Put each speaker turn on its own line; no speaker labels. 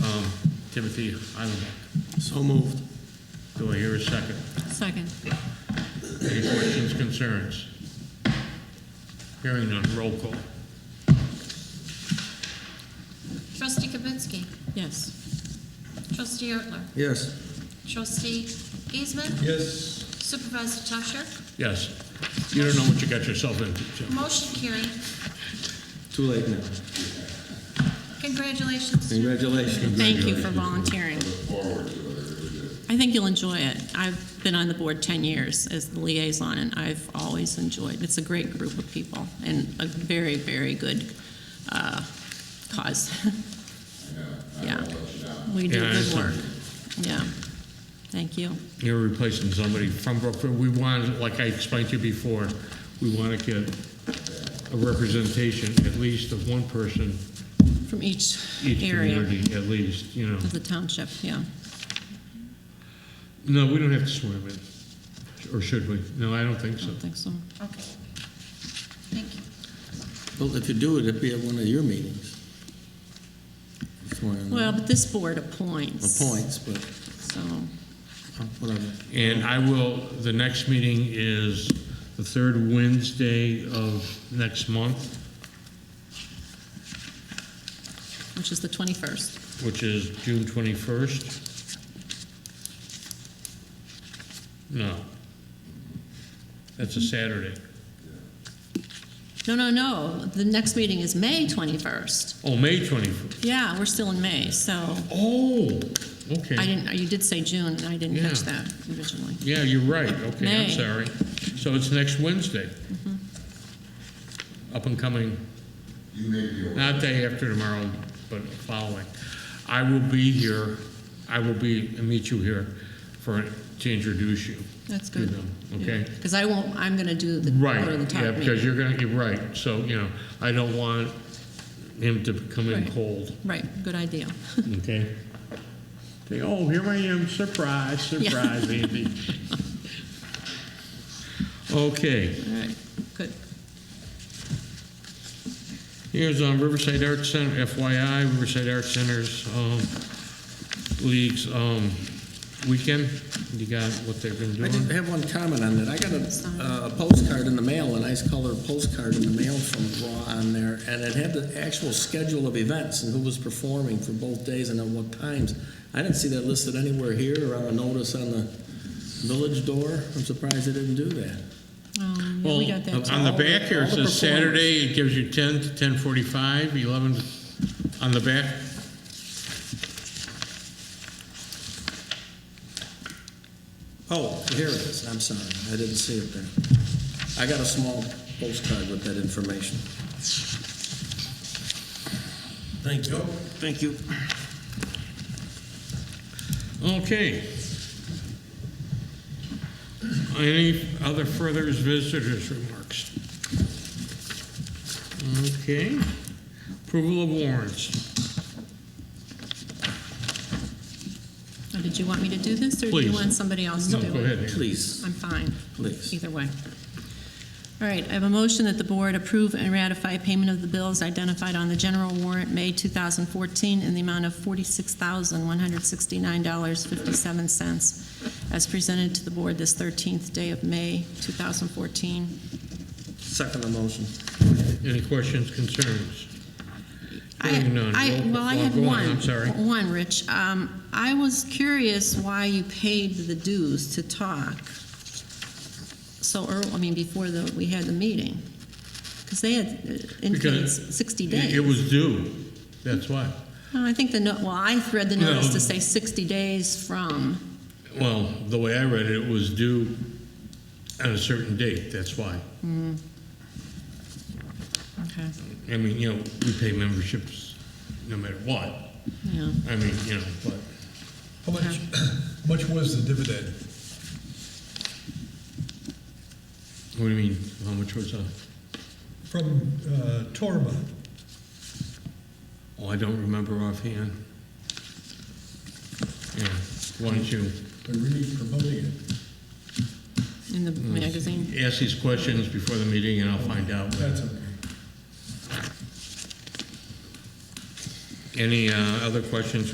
Um, Timothy Heilenbach.
So moved.
Do I hear a second?
Second.
Any questions, concerns? Hearing none, roll call.
Trustee Kibitsky.
Yes.
Trustee Ertler.
Yes.
Trustee Giesman.
Yes.
Supervisor Tusher.
Yes. You don't know what you got yourself into, Jim.
Motion carried.
Too late now.
Congratulations.
Congratulations.
Thank you for volunteering. I think you'll enjoy it. I've been on the board 10 years as the liaison, and I've always enjoyed. It's a great group of people and a very, very good uh, cause. Yeah. We do
Yeah, I
good
understand.
work. Yeah. Thank you.
You're replacing somebody from Brookfield. We want, like I explained to you before, we want to get a representation, at least of one person,
From each
each
area
community, at least, you know.
of the township, yeah.
No, we don't have to swear them in, or should we? No, I don't think
I
so.
don't think so.
Okay. Thank you.
Well, if you do it, it'd be at one of your meetings. Swear in.
Well, but this board appoints.
Appoints, but
So.
uh, whatever.
And I will, the next meeting is the third Wednesday of next month,
which is the 21st.
which is June 21st. No. That's a Saturday.
No, no, no, the next meeting is May 21st.
Oh, May 21st.
Yeah, we're still in May, so
Oh, okay.
I didn't, you did say June, and I didn't catch
Yeah.
that originally.
Yeah, you're right. Okay, I'm
May.
sorry. So it's next Wednesday.
Mm-hmm.
Up and coming. Not day after tomorrow, but following. I will be here, I will be, meet you here for, to introduce you.
That's
to
good.
them, Okay?
Because I won't, I'm going to do the,
Right,
go to the top
yeah,
meeting.
because you're gonna, you're right. So, you know, I don't want him to come in
Right.
cold,
Right, good idea.
okay? Say, oh, here I am, surprise,
Yeah.
surprise, Andy. Okay.
All right, good.
Here's um, Riverside Arts Center, FYI, Riverside Arts Center's um, League's um, weekend. You got what they've been
I did
doing?
have one comment on that. I got a, uh, a postcard in the mail, a nice colored postcard in the mail from Raw on there, and it had the actual schedule of events and who was performing for both days and at what times. I didn't see that listed anywhere here or on a notice on the village door. I'm surprised they didn't do that.
Um, yeah,
Well,
We got that,
on
too.
the
all the-
back here,
all
it
the
says Saturday, it gives you 10 to 10:45, 11 on the back.
Oh, here it is. I'm sorry. I didn't see it there. I got a small postcard with that information. Thank you. Thank you.
Okay. Any other further visitors' remarks? Okay. Approval of warrants.
Now, Oh, Did you want me to do this, or do
Please.
you want somebody else to
No,
do it?
go ahead, Ann.
Please,
I'm fine.
please.
Either way. All right, I have a motion that the board approve and ratify payment of the bills identified on the general warrant, May 2014, in the amount of $46,169.57, as presented to the board this 13th day of May 2014.
Second the motion.
Any questions, concerns? Hearing
I,
none.
I,
Roll-
well, I
well,
had
go on,
one.
I'm sorry.
One, Rich. Um, I was curious why you paid the dues to talk so early, I mean, before the, we had the meeting. Because they had uh, indicated
Because
s- 60
It
days.
it was due, that's why.
No, I think the, no- well, I read the notice
No.
to say 60 days from,
Well, the way I read it, it was due on a certain date, that's why.
okay,
I mean, you know, we pay memberships no matter what.
yeah.
I mean, you know, but
How much, much was the dividend?
what do you mean, how much was that?
From uh, Torma,
Oh, I don't remember offhand. Yeah, why don't you
they're really promoting it.
In
Mm.
the magazine.
ask these questions before the meeting and I'll find out.
That's okay.
Any uh, other questions,